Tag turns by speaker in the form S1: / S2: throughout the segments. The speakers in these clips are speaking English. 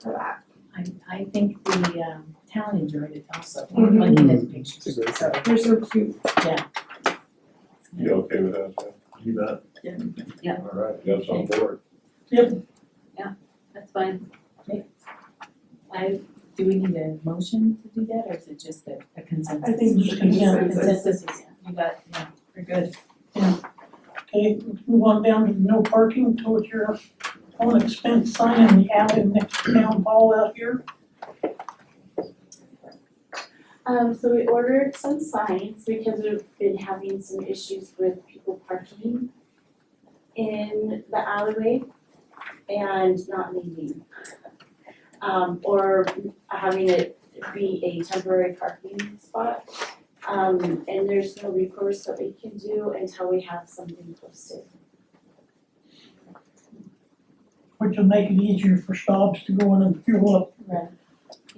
S1: for that.
S2: I, I think the, um, town enjoyed it also,
S1: Mhm.
S2: like in the pictures,
S3: It's a great
S2: so.
S1: They're so cute.
S3: You okay with that, Jeff?
S4: You bet.
S5: Yeah.
S4: All right, that's on board.
S5: That's fine.
S2: I, do we need a motion to do that, or is it just a, a consensus?
S1: I think it's a consensus.
S2: Consensus, is- you got, yeah, we're good.
S6: Okay, let's move on down to no parking towards your own expense sign in the alley next to town hall out here.
S7: Um, so we ordered some signs because we've been having some issues with people parking in the alleyway and not leaving. Um, or having it be a temporary parking spot. Um, and there's no recourse that we can do until we have something posted.
S6: Which will make it easier for shops to go in and fuel up.
S2: Right.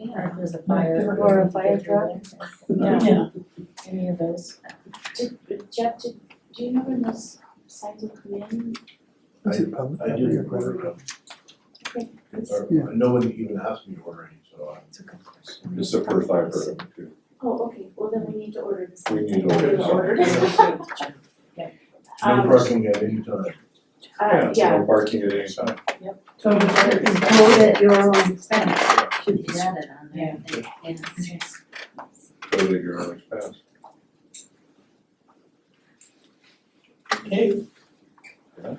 S2: Or if there's a
S6: fire-
S2: fire.
S6: Or
S7: a fire truck.
S2: Yeah,
S6: Yeah,
S2: any of those.
S7: Did, Jeff, did, do you know when those signs will come in?
S4: I,
S3: Is it public?
S4: I didn't order them.
S7: Okay.
S4: Or-
S3: Yeah.
S4: No one even asked me to order any, so I.
S3: It's the first I've heard of it too.
S7: Oh, okay, well then we need to order the
S3: We
S7: signs. Uh,
S3: need to order
S7: We
S3: some.
S4: No
S7: Um,
S4: parking at any time.
S7: Uh,
S3: so
S7: yeah,
S3: No parking at any time.
S1: So it's quote at your own expense.
S5: Should be added on there, I think. yes.
S3: Go to your own expense.
S6: okay,
S3: Okay.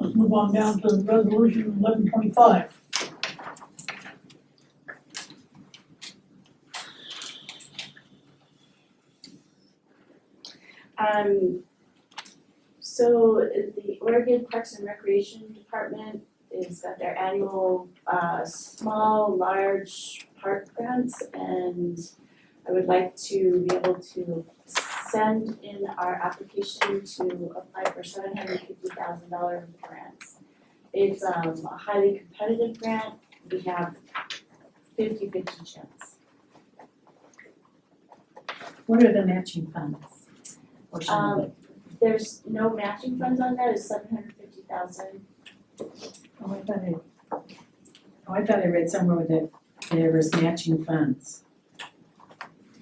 S6: let's move on down to resolution eleven twenty-five.
S7: um, so the Oregon Parks and Recreation Department is got their annual, uh, small, large park grants and I would like to be able to send in our application to apply for seven hundred fifty thousand dollar grants. It's, um, a highly competitive grant, we have 50-50 chance.
S2: What are the matching funds? Portion of
S7: Um,
S2: it.
S7: there's no matching funds on that, it's seven hundred fifty thousand.
S2: Oh, I thought I, oh, I thought I read somewhere that there was matching funds.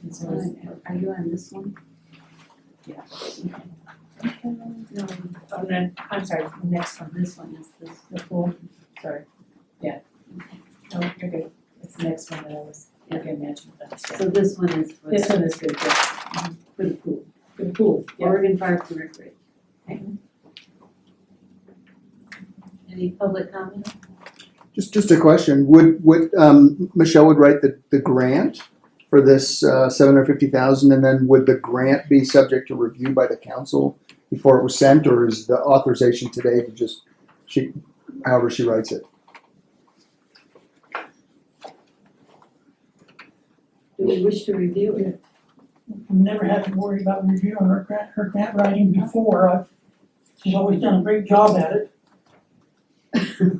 S2: And so it's-
S5: Are you on this one?
S2: No, oh, no, I'm sorry, the next one, this one is this, the pool, sorry, yeah. No, you're good, it's the next one that I was, okay, matching funds, yeah.
S5: So this one is for
S2: This
S5: the,
S2: one is good, yeah,
S5: for the pool,
S2: for the pool, yeah.
S5: Oregon Parks and Recreation. Okay. Any public comment?
S8: Just, just a question, would, would, um, Michelle would write the, the grant for this, uh, seven hundred fifty thousand, and then would the grant be subject to review by the council before it was sent, or is the authorization today to just, she, however she writes it?
S5: Do we wish to review it?
S6: Never had to worry about reviewing her grant, her grant writing before, I've, she's always done a great job at it.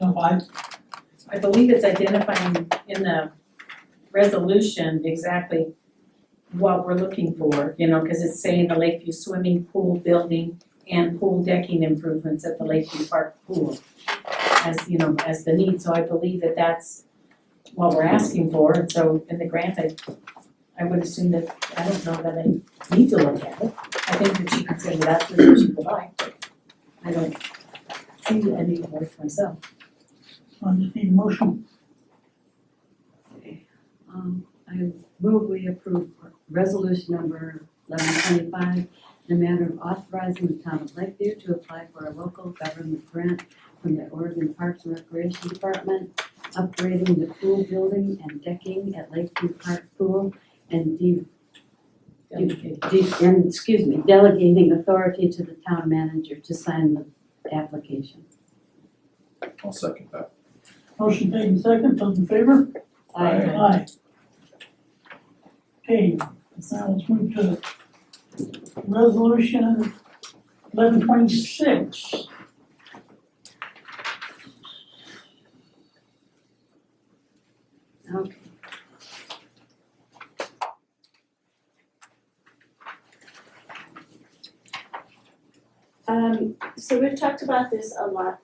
S6: So I,
S2: I believe it's identifying in the resolution exactly what we're looking for, you know, cause it's saying the Lakeview Swimming Pool Building and pool decking improvements at the Lakeview Park Pool as, you know, as the need, so I believe that that's what we're asking for, and so in the grant, I I would assume that, I don't know that I need to look at it, I think that she can say that's what she would like, but I don't see any worth myself.
S6: I just need a motion,
S5: Okay. Um, I move we approve resolution number eleven twenty-five in the matter of authorizing the town of Lakeview to apply for a local government grant from the Oregon Parks and Recreation Department, upgrading the pool building and decking at Lakeview Park Pool and de-
S2: Delegate.
S5: de- and, excuse me, delegating authority to the town manager to sign the application.
S4: I'll second that.
S6: motion made in second, those in favor?
S3: Aye.
S6: Aye. Okay, now let's move to resolution eleven twenty-six.
S5: Okay.
S7: Um, so we've talked about this a lot